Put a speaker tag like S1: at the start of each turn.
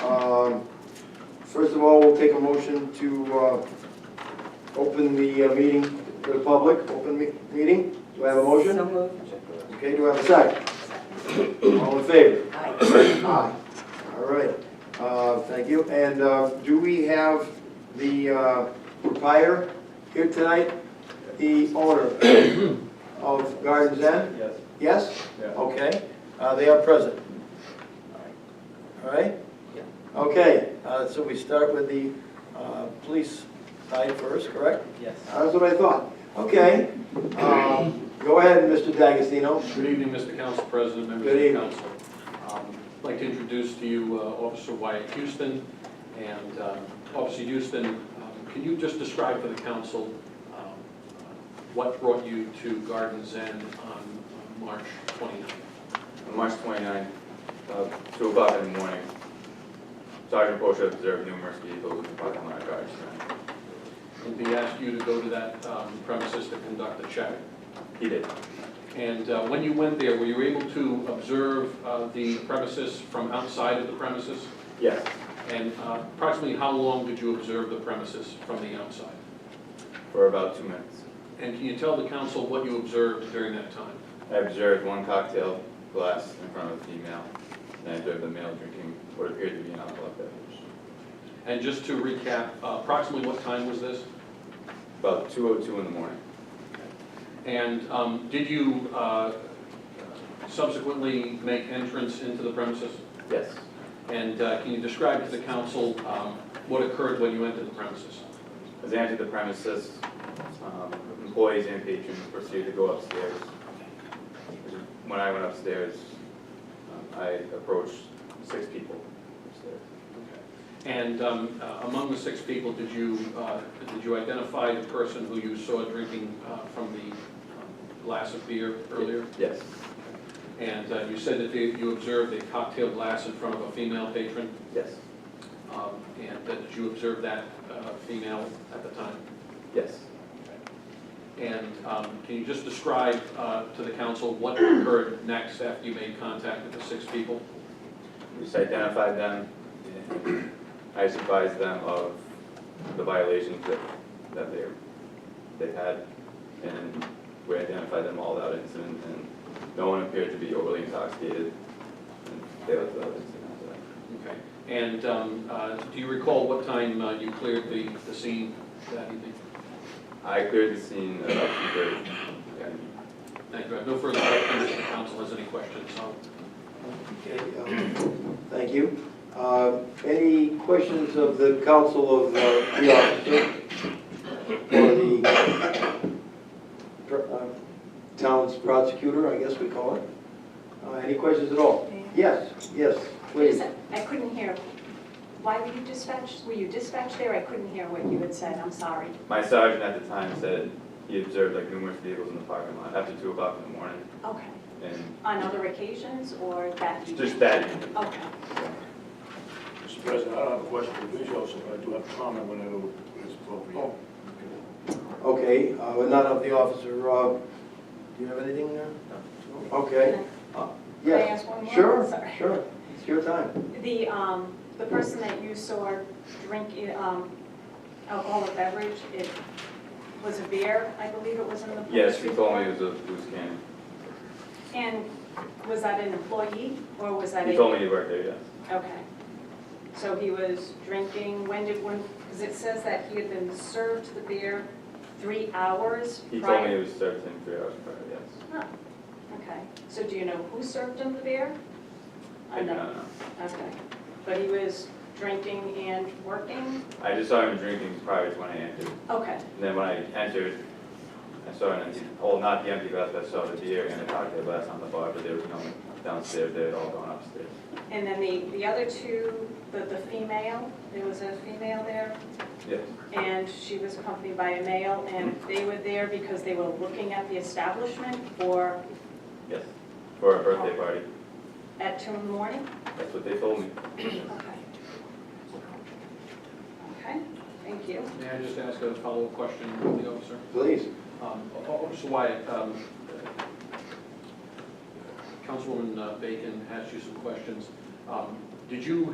S1: Um, First of all, we'll take a motion to uh, open the uh, meeting to the public, open me- meeting. Do I have a motion?
S2: So moved.
S1: Okay, do I have a second? All in favor?
S2: Aye.
S1: Aye. All right, Uh, thank you. And uh, do we have the uh, proprietor here tonight? The owner of Gardens End?
S3: Yes.
S1: Yes?
S3: Yeah.
S1: Okay, uh, they are present. All right?
S2: Yeah.
S1: Okay, uh, so we start with the uh, police side first, correct?
S3: Yes.
S1: That's what I thought. Okay, um, go ahead, Mr. D'Agostino.
S4: Good evening, Mr. Council President,
S1: Good
S4: members of the council. Um, I'd like to introduce to you uh, Officer Wyatt Houston. And um, Officer Houston, um, can you just describe for the council um, what brought you to Gardens End on uh, March 29th?
S5: On March 29th, uh, 2 o'clock in the morning, Sergeant Porsche observed numerous vehicles in the parking lot of Gardner Center.
S4: And he asked you to go to that um, premises to conduct a check.
S5: He did.
S4: And uh, when you went there, were you able to observe uh, the premises from outside of the premises?
S5: Yes.
S4: And uh, approximately how long did you observe the premises from the outside?
S5: For about two minutes.
S4: And can you tell the council what you observed during that time?
S5: I observed one cocktail glass in front of a female, and I observed the male drinking what appeared to be an alcoholic beverage.
S4: And just to recap, uh, approximately what time was this?
S5: About 2:02 in the morning.
S4: And um, did you uh, subsequently make entrance into the premises?
S5: Yes.
S4: And uh, can you describe to the council um, what occurred when you entered the premises?
S5: As I entered the premises, um, employees and patrons proceeded to go upstairs. When I went upstairs, um, I approached six people upstairs.
S4: And um, uh, among the six people, did you, uh, did you identify the person who you saw drinking uh, from the um, glass of beer earlier?
S5: Yes,
S4: And uh, you said that you you observed a cocktail glass in front of a female patron?
S5: yes,
S4: Um, And that- did you observe that uh, female at the time?
S5: yes.
S4: And um, can you just describe uh, to the council what occurred next after you made contact with the six people?
S5: We just identified them. and I just advised them of the violations that, that they, they had. And we identified them all without incident, and no one appeared to be overly intoxicated. And they left without incident after that.
S4: Okay. And um, uh, do you recall what time uh, you cleared the the scene that evening?
S5: I cleared the scene about two thirty.
S4: Thank you. I have no further questions. If the council has any questions, I'll
S1: Okay, um, Thank you. Uh, Any questions of the council of uh, the officer or the uh, town's prosecutor, I guess we call it? Uh, Any questions at all? Yes, yes,
S2: Wait a
S1: please.
S2: sec, I couldn't hear. Why were you dispatched? Were you dispatched there? I couldn't hear what you had said, I'm sorry.
S5: My sergeant at the time said he observed like numerous vehicles in the parking lot after two o'clock in the morning,
S2: Okay.
S5: and
S2: On other occasions or that evening?
S5: just that evening.
S2: Okay.
S6: Mr. President, I don't have a question for the police officer, but I do have a comment whenever it's appropriate.
S1: Okay, uh, but not of the officer. Uh, Do you have anything there? Uh, Okay,
S2: Can I- Can I
S1: yes.
S2: ask one more?
S1: Sure,
S2: Sorry.
S1: sure. It's your time.
S2: The, um, the person that you saw drink, um, alcoholic beverage, it was a beer, I believe it was in the police
S5: Yes, he told me
S2: report?
S5: it was a loose cannon.
S2: And was that an employee or was that a?
S5: He told me he worked there, yes.
S2: Okay. So he was drinking, when did, when, because it says that he had been served the beer three hours
S5: He told me
S2: prior.
S5: it was served in three hours prior, yes.
S2: Oh, okay. So do you know who served him the beer?
S5: I do not know.
S2: Okay. But he was drinking and working?
S5: I just saw him drinking prior to when I entered.
S2: Okay,
S5: And then when I entered, I saw an empty, well, not the empty glass, but I saw the beer and the cocktail glass on the bar, but there was no one downstairs, they had all gone upstairs.
S2: and then the, the other two, the, the female, there was a female there,
S5: Yes,
S2: and she was accompanied by a male, and they were there because they were looking at the establishment for,
S5: yes. For a birthday party,
S2: at two in the morning?
S5: that's what they told me.
S2: Okay. Okay, thank you.
S4: May I just ask a follow-up question of the officer?
S1: Please.
S4: Um, O- Officer Wyatt, um, Councilwoman uh, Bacon asked you some questions. Um, Did you